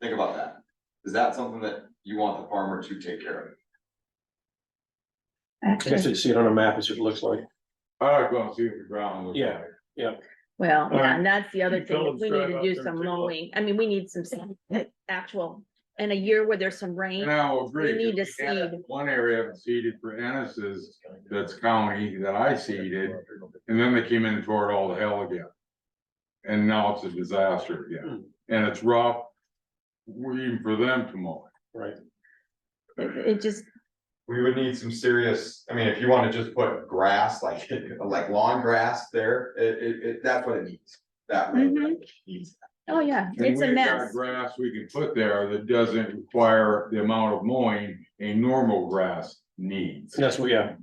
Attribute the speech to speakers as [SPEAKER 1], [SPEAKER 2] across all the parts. [SPEAKER 1] Think about that. Is that something that you want the farmer to take care of?
[SPEAKER 2] Guess they see it on a map as it looks like.
[SPEAKER 3] I'll go and see if the ground looks
[SPEAKER 2] Yeah.
[SPEAKER 3] like.
[SPEAKER 4] Well,
[SPEAKER 2] All
[SPEAKER 4] yeah,
[SPEAKER 2] right.
[SPEAKER 4] and that's the other
[SPEAKER 2] You
[SPEAKER 4] thing,
[SPEAKER 2] tell
[SPEAKER 4] is we need
[SPEAKER 2] them drive
[SPEAKER 4] to
[SPEAKER 2] out
[SPEAKER 4] do
[SPEAKER 2] there and
[SPEAKER 4] some
[SPEAKER 2] take a look.
[SPEAKER 4] mowing, I mean, we need some s- actual, in a year where there's some
[SPEAKER 3] And
[SPEAKER 4] rain,
[SPEAKER 3] I will agree.
[SPEAKER 4] We need
[SPEAKER 3] 'cause
[SPEAKER 4] to
[SPEAKER 3] we had
[SPEAKER 4] seed.
[SPEAKER 3] One area I've seeded for Ennis's, that's county, that I seeded, and then they came in and tore it all to hell again. And now it's a disaster again,
[SPEAKER 2] Hmm.
[SPEAKER 3] and it's rough, even for them to mow. it.
[SPEAKER 2] Right.
[SPEAKER 4] it it just,
[SPEAKER 1] We would need some serious, I mean, if you wanna just put grass, like, like lawn grass there, it, it, it, that's what it needs. That really needs.
[SPEAKER 4] Mm-hmm. oh, yeah,
[SPEAKER 3] And
[SPEAKER 4] it's a
[SPEAKER 3] we've got
[SPEAKER 4] mess.
[SPEAKER 3] Grass we can put there that doesn't require the amount of mowing a normal grass needs.
[SPEAKER 2] And that's what, yeah,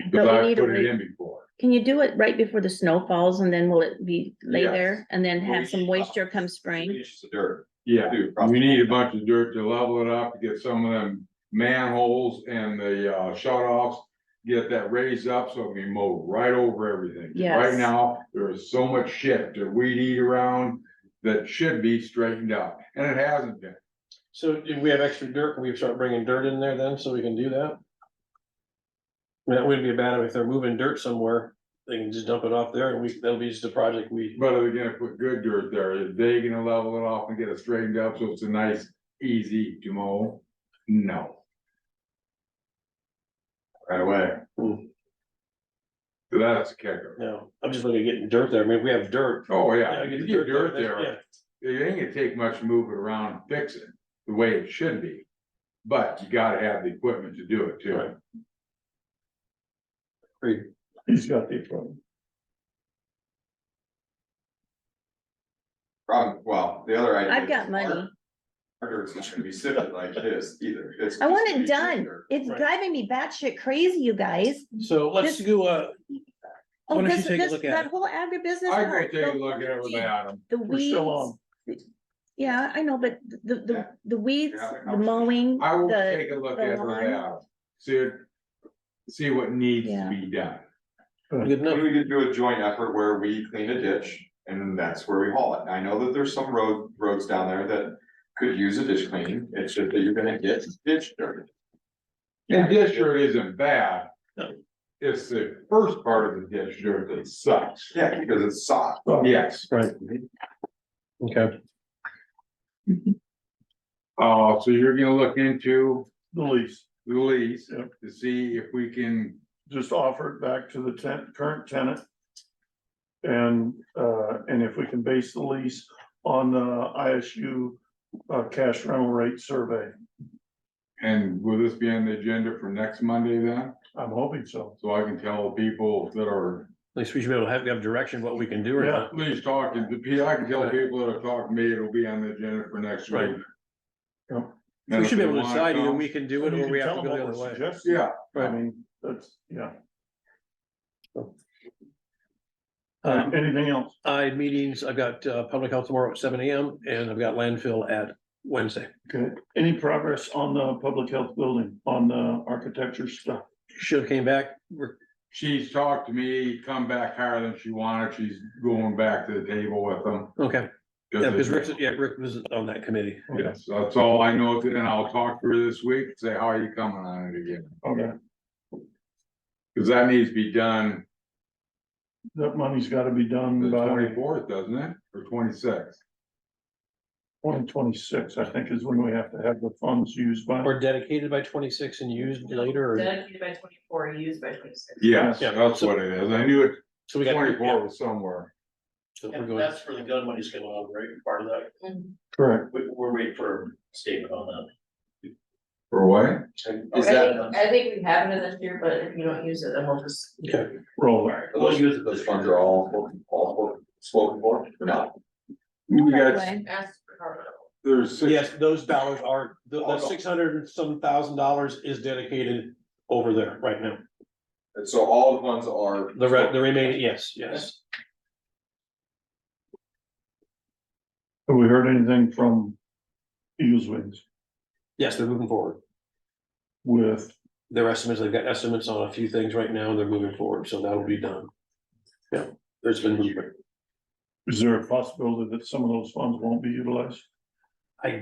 [SPEAKER 3] Cause
[SPEAKER 4] But we
[SPEAKER 3] I
[SPEAKER 4] need a
[SPEAKER 3] put it
[SPEAKER 4] re-
[SPEAKER 3] in before.
[SPEAKER 4] Can you do it right before the snow falls and then will it be lay
[SPEAKER 1] Yes.
[SPEAKER 4] there and then have some
[SPEAKER 1] We-
[SPEAKER 4] moisture come spring?
[SPEAKER 1] Inches of dirt.
[SPEAKER 3] Yeah,
[SPEAKER 1] too,
[SPEAKER 3] we
[SPEAKER 1] probably.
[SPEAKER 3] need a bunch of dirt to level it up, to get some of them manholes and the uh shut offs. Get that raised up so it can mow right over everything. Right
[SPEAKER 4] Yes.
[SPEAKER 3] now, there is so much shit to weed eat around that should be straightened out, and it hasn't been.
[SPEAKER 2] so do we have extra dirt, can we start bringing dirt in there then, so we can do that? That wouldn't be bad if they're moving dirt somewhere, they can just dump it off there, and we, that'll be just a project we,
[SPEAKER 3] But are they gonna put good dirt there? Are they gonna level it off and get it straightened up so it's a nice, easy to mow? No.
[SPEAKER 1] Right away.
[SPEAKER 3] So That's a kicker.
[SPEAKER 2] no, I'm just looking at getting dirt there, I mean, if we have dirt.
[SPEAKER 3] Oh, yeah,
[SPEAKER 2] yeah,
[SPEAKER 3] you
[SPEAKER 2] get the
[SPEAKER 3] get dirt
[SPEAKER 2] that's-
[SPEAKER 3] there.
[SPEAKER 2] yeah.
[SPEAKER 3] it ain't gonna take much to move it around and fix it the way it should be. But you gotta have the equipment to do it
[SPEAKER 2] Right.
[SPEAKER 3] too.
[SPEAKER 2] He's got the problem.
[SPEAKER 1] Problem, well, the other item.
[SPEAKER 4] I've
[SPEAKER 1] is
[SPEAKER 4] got money.
[SPEAKER 1] our- Our dirt's not gonna be sitting like this either. It's.
[SPEAKER 4] I want it
[SPEAKER 1] just gonna be
[SPEAKER 4] done.
[SPEAKER 1] dirt.
[SPEAKER 4] It's
[SPEAKER 2] Right.
[SPEAKER 4] driving me batshit crazy, you guys.
[SPEAKER 2] So let's uh, do a,
[SPEAKER 4] Oh,
[SPEAKER 2] Why don't you
[SPEAKER 4] this,
[SPEAKER 2] take a
[SPEAKER 4] this,
[SPEAKER 2] look at
[SPEAKER 4] that
[SPEAKER 2] it?
[SPEAKER 4] whole agribusiness.
[SPEAKER 3] I go
[SPEAKER 4] part,
[SPEAKER 3] take a
[SPEAKER 4] the-
[SPEAKER 3] look at it with Adam.
[SPEAKER 4] The
[SPEAKER 2] we're still on.
[SPEAKER 4] weeds, yeah, I know, but the, the,
[SPEAKER 1] Yeah.
[SPEAKER 4] the weeds,
[SPEAKER 1] Yeah,
[SPEAKER 4] the mowing,
[SPEAKER 3] I will
[SPEAKER 4] the,
[SPEAKER 3] take a look
[SPEAKER 4] the
[SPEAKER 3] at it with
[SPEAKER 4] lawn.
[SPEAKER 3] Adam. See, it- see what needs to
[SPEAKER 4] Yeah.
[SPEAKER 3] be done.
[SPEAKER 2] good
[SPEAKER 1] Maybe
[SPEAKER 2] enough,
[SPEAKER 1] we could do a joint effort where we clean a ditch and that's where we haul it. I know that there's some road, roads down there that could use a ditch cleaning. It's just that you're gonna get ditch dirt.
[SPEAKER 3] And ditch dirt isn't bad.
[SPEAKER 2] No.
[SPEAKER 3] It's the first part of the ditch dirt that sucks.
[SPEAKER 1] Yeah, because it's soft.
[SPEAKER 2] Oh.
[SPEAKER 3] Yes,
[SPEAKER 2] right? Okay.
[SPEAKER 3] uh, so you're gonna look into
[SPEAKER 5] the lease,
[SPEAKER 3] the lease
[SPEAKER 5] Yep.
[SPEAKER 3] to see if we can,
[SPEAKER 5] just offer it back to the ten, current tenant. And, uh, and if we can base the lease on the ISU, uh, cash rental rate survey,
[SPEAKER 3] and will this be on the agenda for next Monday then?
[SPEAKER 5] I'm hoping so.
[SPEAKER 3] So I can tell the people that are,
[SPEAKER 2] At least we should be able to have, have direction what we can do or
[SPEAKER 5] Yeah.
[SPEAKER 2] not.
[SPEAKER 3] at least talking, the P, I can tell people that are talking to me, it'll be on the agenda for next week.
[SPEAKER 2] Right.
[SPEAKER 5] Yeah.
[SPEAKER 3] And
[SPEAKER 2] We should be
[SPEAKER 3] if
[SPEAKER 2] able to
[SPEAKER 3] they wanna
[SPEAKER 2] decide either
[SPEAKER 3] come-
[SPEAKER 2] we can do it
[SPEAKER 5] You
[SPEAKER 2] or
[SPEAKER 5] can
[SPEAKER 2] we have
[SPEAKER 5] tell
[SPEAKER 2] to
[SPEAKER 5] them
[SPEAKER 2] go the
[SPEAKER 5] what
[SPEAKER 2] other
[SPEAKER 5] we're
[SPEAKER 2] way.
[SPEAKER 5] suggesting.
[SPEAKER 3] Yeah,
[SPEAKER 5] I
[SPEAKER 2] Right.
[SPEAKER 5] mean, that's, yeah,
[SPEAKER 2] Um,
[SPEAKER 5] anything else?
[SPEAKER 2] I have meetings, I've got uh public health tomorrow at seven AM and I've got landfill at Wednesday.
[SPEAKER 5] Okay, any progress on the public health building, on the architecture stuff?
[SPEAKER 2] Should have came back, we're,
[SPEAKER 3] she's talked to me, come back higher than she wanted, she's going back to the table with them.
[SPEAKER 2] okay, yeah, because Rick, yeah, Rick was on that committee.
[SPEAKER 3] Yes, that's all I know, and I'll talk to her this week, say, how are you coming on it again?
[SPEAKER 5] Okay,
[SPEAKER 3] Cause that needs to be done
[SPEAKER 5] that money's gotta be
[SPEAKER 3] the
[SPEAKER 5] done by
[SPEAKER 3] twenty-fourth, doesn't it, or twenty-sixth?
[SPEAKER 5] twenty twenty-six, I think is when we have to have the funds used by.
[SPEAKER 2] Or dedicated by twenty-six and used later or,
[SPEAKER 6] Dedicated by twenty-four, used by twenty-six.
[SPEAKER 3] Yes,
[SPEAKER 2] Yeah.
[SPEAKER 3] that's what it is, I knew it,
[SPEAKER 2] so we got.
[SPEAKER 3] twenty-four was somewhere,
[SPEAKER 2] So we're
[SPEAKER 7] And
[SPEAKER 2] going,
[SPEAKER 7] that's for the gun money's going on, right? Part of that,
[SPEAKER 6] Mm-hmm.
[SPEAKER 5] Correct.
[SPEAKER 7] we, we're waiting for a statement on
[SPEAKER 3] or what?
[SPEAKER 7] that.
[SPEAKER 6] I
[SPEAKER 1] Is that-
[SPEAKER 6] think, I think we have it this year, but if you don't use it, then we'll just.
[SPEAKER 2] okay,
[SPEAKER 5] roll.
[SPEAKER 7] We'll use it
[SPEAKER 1] Those
[SPEAKER 7] this
[SPEAKER 1] funds
[SPEAKER 7] year.
[SPEAKER 1] are all, all spoken for, or not?
[SPEAKER 3] We got,
[SPEAKER 4] Right.
[SPEAKER 6] Ask for Carmen.
[SPEAKER 3] there's six
[SPEAKER 2] yes, those dollars are, the, the six hundred and some thousand dollars is dedicated over there right now.
[SPEAKER 1] And so all the funds are.
[SPEAKER 2] The re, the remaining, yes, yes.
[SPEAKER 5] Have we heard anything from Eagles Wings
[SPEAKER 2] Yes, they're moving forward.
[SPEAKER 5] with,
[SPEAKER 2] Their estimates, they've got estimates on a few things right now, and they're moving forward, so that'll be done. Yeah, there's been movement.
[SPEAKER 5] is there a possibility that some of those funds won't be utilized?